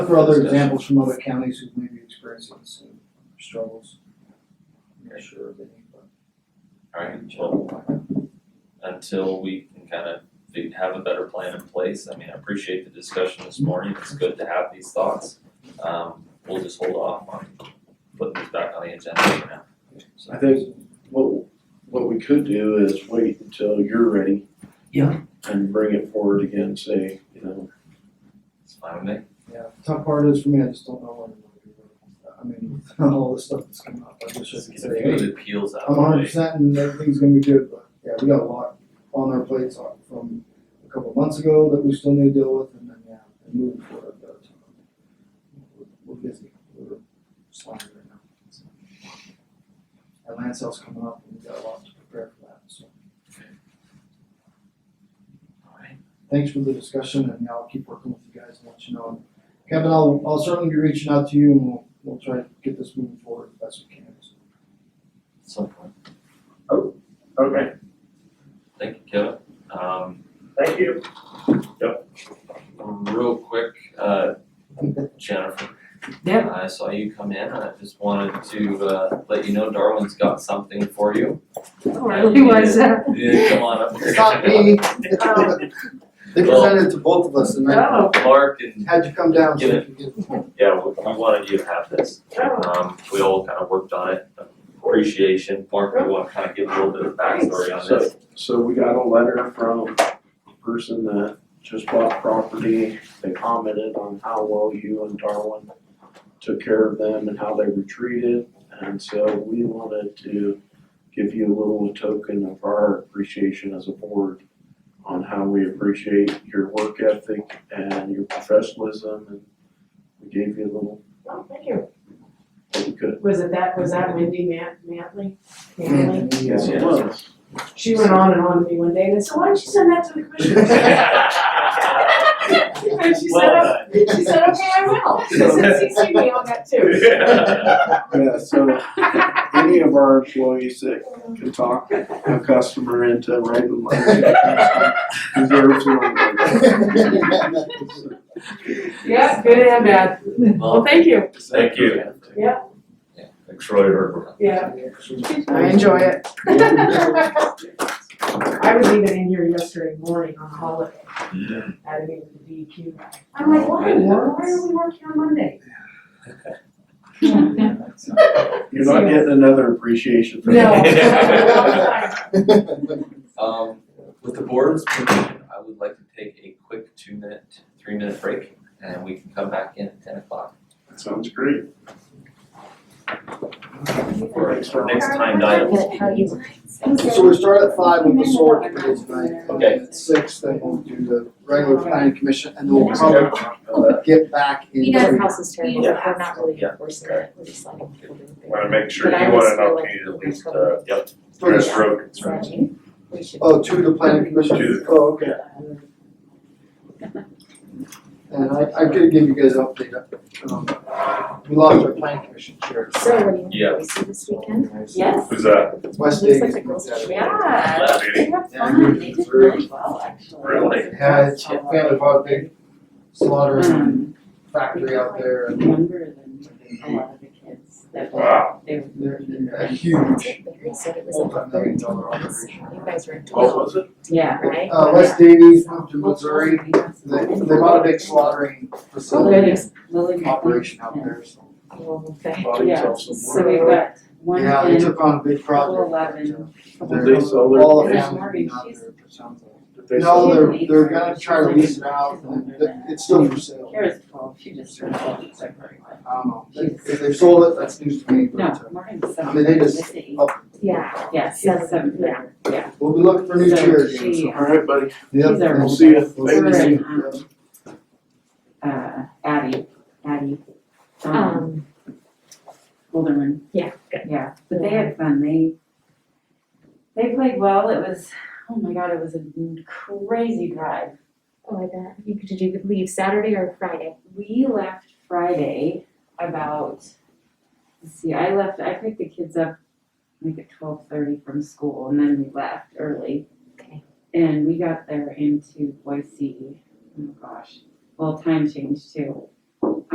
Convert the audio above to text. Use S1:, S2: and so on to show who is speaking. S1: for other
S2: discussion.
S1: examples from other counties who may be experiencing the same struggles. I'm not sure of any, but.
S2: Alright, well, until we can kind of fi- have a better plan in place, I mean, I appreciate the discussion this morning, it's good to have these thoughts. Um, we'll just hold off on putting this back on the agenda for now.
S3: I think what, what we could do is wait until you're ready.
S2: Yeah.
S3: And bring it forward again, say, you know,
S2: It's fine with me.
S1: Yeah, tough part is for me, I just don't know what I'm gonna do. I mean, all the stuff that's coming up, I wish I could
S2: Get
S1: say,
S2: a few
S1: hey,
S2: of the appeals out
S1: I'm
S2: of the
S1: hundred
S2: way.
S1: percent and everything's gonna be good, but yeah, we got a lot on our plates on- from a couple of months ago that we still need to deal with and then, yeah, and moving forward, but um, we're, we're busy, we're slammed right now. so. Our land sale's coming up and we got a lot to prepare for that, so
S2: Alright,
S1: thanks for the discussion and I'll keep working with you guys and let you know. And Kevin, I'll, I'll certainly be reaching out to you and we'll, we'll try to get this moving forward as best we can, so.
S2: some point.
S4: Okay,
S2: Thank you, Kevin. Um,
S4: thank you.
S2: real quick, uh, Jennifer.
S5: Yeah.
S2: I saw you come in and I just wanted to, uh, let you know Darwin's got something for you.
S5: Oh, really was that?
S2: Yeah, come on up here.
S1: It's not me. They presented it to both of us and then
S5: Oh,
S2: Mark and
S1: had you come down so
S2: Get
S1: you could
S2: it.
S1: get. it.
S2: Yeah, we we wanted you to have this.
S5: oh,
S2: Um, we all kind of worked on it, appreciation, Mark, we want to kind of give a little bit of backstory on this.
S3: so we got a letter from a person that just bought property. They commented on how well you and Darwin took care of them and how they were treated. And so we wanted to give you a little token of our appreciation as a board on how we appreciate your work ethic and your professionalism. And we gave you a little,
S5: oh, thank you.
S3: what we could.
S5: Was it that, was that Wendy Man- Mantley? Manley?
S3: Yes,
S2: it
S3: was.
S5: She went on and on to me one day and said, why don't you send that to the commissioners? And she said,
S2: Well
S5: she said, okay, I will. She said, CC me on that too.
S2: done.
S3: Yeah, so any of our employees that can talk a customer into writing letters to the customer deserves an award.
S5: Yeah, good and bad. Well,
S2: Well,
S5: thank you.
S2: Thank you.
S5: Yeah.
S2: Yeah, like Troy heard.
S5: Yeah, I enjoy it. I was even in here yesterday morning on holiday at a meeting with the DEQ. I'm like, why, Warren? why are we working on Monday?
S3: You're not getting another appreciation for
S5: No.
S3: that.
S2: Um, with the board's permission, I would like to take a quick two minute, three minute break and we can come back in at ten o'clock.
S3: That Sounds great.
S2: For our next timed item.
S1: So we start at five with the sword committee tonight.
S2: Okay.
S1: At Six, then we'll do the regular planning commission and then we'll probably get back
S6: You know, the
S1: into.
S6: house is terrible,
S2: Yeah.
S6: we're not really
S2: Yeah.
S6: enforcing it, we're just letting people do it.
S4: Want to make sure
S6: But I
S4: you want
S6: always
S4: an
S6: feel like
S4: opportunity to at
S6: we're
S4: least,
S6: covered.
S4: uh, yep,
S1: Three.
S4: address road concerns.
S6: So, we should-
S1: Oh, to the planning commission,
S4: Two.
S1: oh, okay, and I, I could give you guys an update, um, we lost our planning commission chair,
S6: So, what do you want
S2: Yeah.
S6: to see this weekend?
S5: Yes.
S4: Who's that?
S1: West
S6: Looks
S1: Vegas.
S6: like the
S1: moved
S6: girls
S1: out of-
S5: Yeah,
S2: Last
S5: they had
S1: Yeah,
S5: fun,
S1: you
S5: they
S1: did
S5: did really well, actually.
S4: Really?
S1: Had a family bought a big
S6: Mm.
S1: slaughtering factory out there and
S7: younger than a lot of the kids that were,
S4: Wow,
S7: they were learning.
S1: a huge
S6: They said it was like a
S1: multi-million
S6: third
S1: dollar
S6: place.
S1: operation.
S6: You guys were in
S3: What
S6: twelve,
S3: was it?
S7: Yeah,
S6: right?
S1: Uh, West Davies moved to Missouri, they, they bought a big slaughtering facility
S7: Lily.
S1: operation out there, so.
S6: Oh, okay.
S1: bought themselves some
S7: So
S1: more.
S7: we've got one
S1: Yeah, they
S7: in,
S1: took on a big project.
S7: eleven.
S1: They're-
S3: Did they sell their-
S1: All the
S7: There's
S1: family
S7: more
S1: being out
S7: issues.
S1: there, it sounds like.
S3: Did they sell
S1: No, they're,
S3: it?
S1: they're gonna try to lease it out, and th- it's still for sale,
S7: Kara's twelve, she just turned twelve, it's like very much.
S1: I don't know, if if they sold it, that's news to me, but,
S7: No,
S1: uh,
S7: Martin's
S1: I
S7: seven,
S1: mean, they
S7: this
S1: just-
S7: is eight.
S6: Yeah,
S7: Yeah, she's a
S6: Seven,
S7: seven, yeah, yeah.
S1: we'll be looking for new
S7: So
S1: chairs.
S7: she,
S3: All right, buddy.
S1: Yep,
S7: These are
S1: we'll
S7: old
S1: see you.
S7: ones. We're in, um, Uh, Addie, Addie, um,
S6: um,
S7: Holderman.
S6: yeah, good.
S7: Yeah, but they had fun, they, they played well, it was, oh my god, it was a crazy drive.
S6: Oh, I bet, you could, did you leave Saturday or Friday?
S7: We left Friday about, let's see, I left, I picked the kids up like at twelve thirty from school and then we left early.
S6: Okay.
S7: E. And we got there into Boise, oh gosh, well, time change too,